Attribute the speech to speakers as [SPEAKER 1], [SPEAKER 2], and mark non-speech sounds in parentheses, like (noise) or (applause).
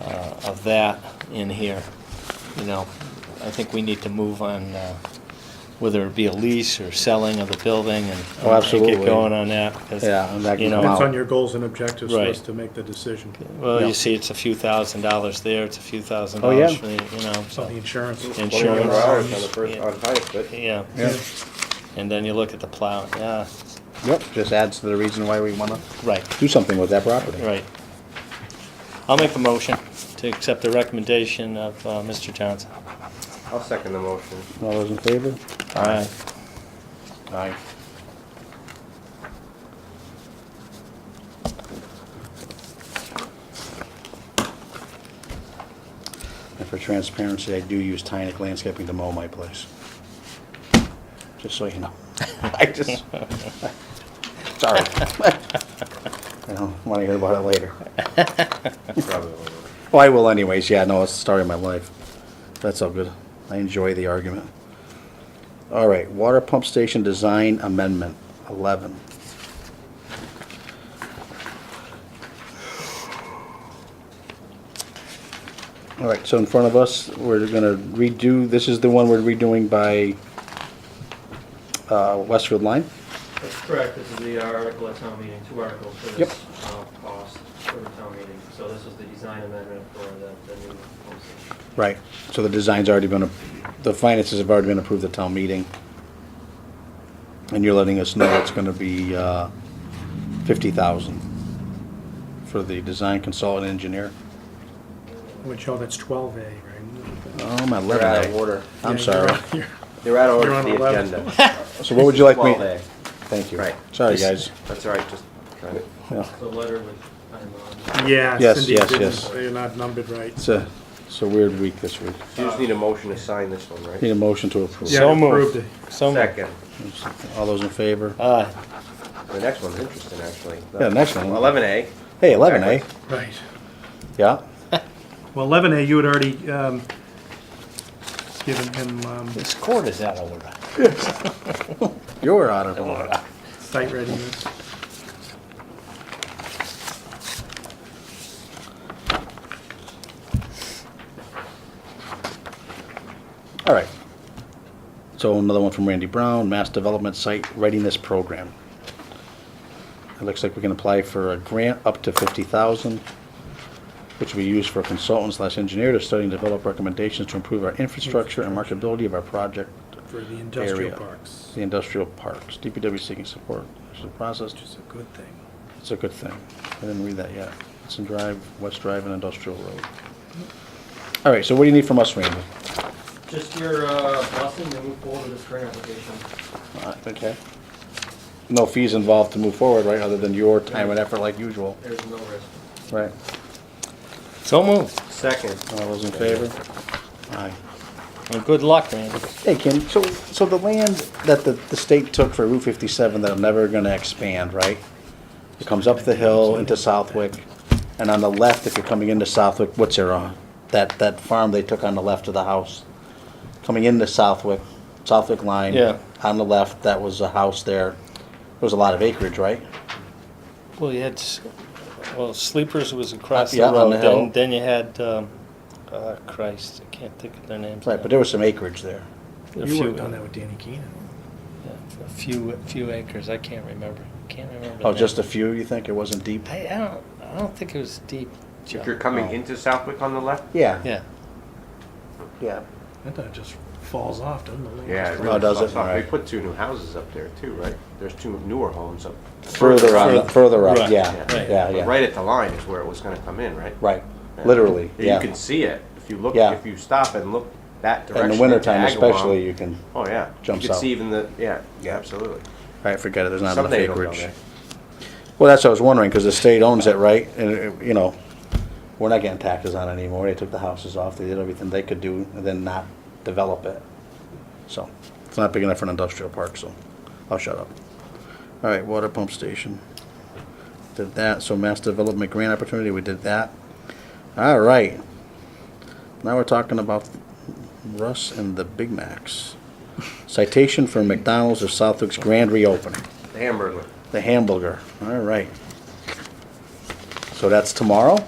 [SPEAKER 1] uh, of that in here. You know, I think we need to move on uh, whether it be a lease or selling of the building and.
[SPEAKER 2] Oh, absolutely.
[SPEAKER 1] Get going on that. 'cause,
[SPEAKER 2] Yeah, and that
[SPEAKER 1] you
[SPEAKER 2] can
[SPEAKER 1] know,
[SPEAKER 2] come out.
[SPEAKER 3] It's on your goals and objectives for us
[SPEAKER 1] Right.
[SPEAKER 3] to make the decision.
[SPEAKER 1] Well,
[SPEAKER 2] Yeah.
[SPEAKER 1] you see, it's a few thousand dollars there, it's a few thousand
[SPEAKER 2] Oh, yeah.
[SPEAKER 1] dollars, for the- you know,
[SPEAKER 3] It's on the insurance.
[SPEAKER 1] Insurance.
[SPEAKER 4] hours on the first, on highest bid.
[SPEAKER 1] yeah.
[SPEAKER 2] Yeah.
[SPEAKER 1] And then you look at the plow, yeah,
[SPEAKER 2] Yep, just adds to the reason why we wanna
[SPEAKER 1] right,
[SPEAKER 2] do something with that property.
[SPEAKER 1] right. I'll make a motion to accept the recommendation of uh, Mr. Johnson.
[SPEAKER 4] I'll second the motion.
[SPEAKER 2] All those in favor?
[SPEAKER 1] All right,
[SPEAKER 2] Aye. And for transparency, I do use Tynick Landscaping to mow my place. Just so you know. (laughs) I just, (laughs) sorry. I don't want to hear about it later.
[SPEAKER 4] Probably will.
[SPEAKER 2] Well, I will anyways, yeah, no, it's the story of my life. That's all good. I enjoy the argument. All right, water pump station design amendment, 11. All right, so in front of us, we're gonna redo, this is the one we're redoing by uh, Westfield Line?
[SPEAKER 5] That's correct, this is the article at town meeting, two articles for
[SPEAKER 2] Yep.
[SPEAKER 5] this uh, cost for the town meeting. So this is the design amendment for the, the new home station.
[SPEAKER 2] Right, so the design's already been, ap- the finances have already been approved at town meeting. And you're letting us know it's gonna be, uh, fifty thousand for the design consultant engineer.
[SPEAKER 3] Which, oh, that's 12A, right?
[SPEAKER 2] Oh, my
[SPEAKER 4] They're out
[SPEAKER 2] eleven
[SPEAKER 4] of order.
[SPEAKER 2] I'm
[SPEAKER 3] Yeah,
[SPEAKER 2] sorry.
[SPEAKER 3] you're- you're-
[SPEAKER 4] They're out of order
[SPEAKER 3] You're on
[SPEAKER 4] for the
[SPEAKER 3] 11.
[SPEAKER 4] agenda.
[SPEAKER 2] So what would you like me?
[SPEAKER 4] 12A.
[SPEAKER 2] Thank you.
[SPEAKER 4] Right.
[SPEAKER 2] Sorry, guys.
[SPEAKER 4] That's all right, just kind of.
[SPEAKER 2] Yeah.
[SPEAKER 5] The letter with, I'm on.
[SPEAKER 3] Yeah.
[SPEAKER 2] Yes,
[SPEAKER 3] Cindy
[SPEAKER 2] yes,
[SPEAKER 3] didn't-
[SPEAKER 2] yes.
[SPEAKER 3] They're not numbered right.
[SPEAKER 2] It's a, it's a weird week this week.
[SPEAKER 4] You just need a motion to sign this one, right?
[SPEAKER 2] Need a motion to approve.
[SPEAKER 3] Yeah,
[SPEAKER 1] So
[SPEAKER 3] I
[SPEAKER 1] moved.
[SPEAKER 3] approved it.
[SPEAKER 1] so moved. Uh,
[SPEAKER 4] Second.
[SPEAKER 2] All those in favor?
[SPEAKER 1] Aye.
[SPEAKER 4] The next one's interesting, actually.
[SPEAKER 2] Yeah, next one.
[SPEAKER 4] Eleven A.
[SPEAKER 2] Hey, eleven, eh?
[SPEAKER 3] Right.
[SPEAKER 2] Yeah?
[SPEAKER 3] Well, 11A, you had already um, given him um,
[SPEAKER 1] This court is out of order.
[SPEAKER 2] You're out of order.
[SPEAKER 3] site readiness.
[SPEAKER 2] All right. So another one from Randy Brown, Mass Development Site Readiness Program. It looks like we can apply for a grant up to fifty thousand, which will be used for consultant slash engineer to study and develop recommendations to improve our infrastructure and marketability of our project,
[SPEAKER 3] For the industrial
[SPEAKER 2] Area.
[SPEAKER 3] parks.
[SPEAKER 2] the industrial parks. DPW seeking support. This is a process.
[SPEAKER 3] Which is a good thing.
[SPEAKER 2] It's a good thing. I didn't read that yet. It's in Drive, West Drive and Industrial Road. All right, so what do you need from us, Randy?
[SPEAKER 5] Just your uh, blessing to move forward with this grant application.
[SPEAKER 2] Okay. No fees involved to move forward, right, other than your time and effort like usual?
[SPEAKER 5] There's no risk.
[SPEAKER 2] Right.
[SPEAKER 1] So moved,
[SPEAKER 4] Second.
[SPEAKER 2] All those in favor? Aye.
[SPEAKER 1] and good luck, Randy.
[SPEAKER 2] Hey, Ken, so, so the land that the, the state took for Route fifty-seven that I'm never gonna expand, right? It comes up the hill into Southwick, and on the left, if you're coming into Southwick, what's there on? That, that farm they took on the left of the house, coming into Southwick, Southwick line.
[SPEAKER 1] Yeah.
[SPEAKER 2] On the left, that was a house there. There was a lot of acreage, right?
[SPEAKER 1] Well, you had, s- well, Sleepers was across the
[SPEAKER 2] Yeah, on
[SPEAKER 1] road,
[SPEAKER 2] the hill.
[SPEAKER 1] then, then you had, um, uh, Christ, I can't think of their names.
[SPEAKER 2] Right, but there was some acreage there.
[SPEAKER 1] A
[SPEAKER 3] You
[SPEAKER 1] few-
[SPEAKER 3] worked on that with Danny Keenan.
[SPEAKER 1] yeah, A few, a few acres, I can't remember, can't remember.
[SPEAKER 2] Oh,
[SPEAKER 1] the
[SPEAKER 2] just a
[SPEAKER 1] name.
[SPEAKER 2] few, you think? It wasn't deep?
[SPEAKER 1] I, I don't, I don't think it was deep, Joe.
[SPEAKER 4] If you're coming
[SPEAKER 2] Oh.
[SPEAKER 4] into Southwick on the left?
[SPEAKER 2] Yeah.
[SPEAKER 1] Yeah,
[SPEAKER 2] Yeah.
[SPEAKER 3] That thing just falls off, doesn't it?
[SPEAKER 4] Yeah, it
[SPEAKER 2] Oh,
[SPEAKER 4] really
[SPEAKER 2] does
[SPEAKER 4] sucks
[SPEAKER 2] it?
[SPEAKER 4] off. They
[SPEAKER 2] Alright.
[SPEAKER 4] put two new houses up there too, right? There's two newer homes up.
[SPEAKER 2] Further up, further up,
[SPEAKER 1] Right,
[SPEAKER 2] yeah,
[SPEAKER 1] right.
[SPEAKER 2] yeah,
[SPEAKER 4] But
[SPEAKER 2] yeah.
[SPEAKER 4] Right at the line is where it was gonna come in, right?
[SPEAKER 2] Right, literally,
[SPEAKER 4] You
[SPEAKER 2] yeah.
[SPEAKER 4] can see it. If you look,
[SPEAKER 2] Yeah.
[SPEAKER 4] if you stop and look that direction.
[SPEAKER 2] In the wintertime
[SPEAKER 4] into Agawam,
[SPEAKER 2] especially, you can,
[SPEAKER 4] Oh, yeah.
[SPEAKER 2] jumps
[SPEAKER 4] You can
[SPEAKER 2] out.
[SPEAKER 4] see even the, yeah, yeah, absolutely.
[SPEAKER 2] all right, forget it, there's not enough
[SPEAKER 4] Someday it'll go
[SPEAKER 2] acreage.
[SPEAKER 4] there.
[SPEAKER 2] Well, that's what I was wondering, because the state owns it, right? And, it- you know, we're not getting taxes on it anymore. They took the houses off, they did everything they could do, and then not develop it. So, it's not big enough for an industrial park, so I'll shut up. All right, water pump station. Did that, so mass development grant opportunity, we did that. All right. Now we're talking about Russ and the Big Macs. Citation for McDonald's of Southwick's grand reopening.
[SPEAKER 4] The hamburger.
[SPEAKER 2] The hamburger, all right. So that's tomorrow?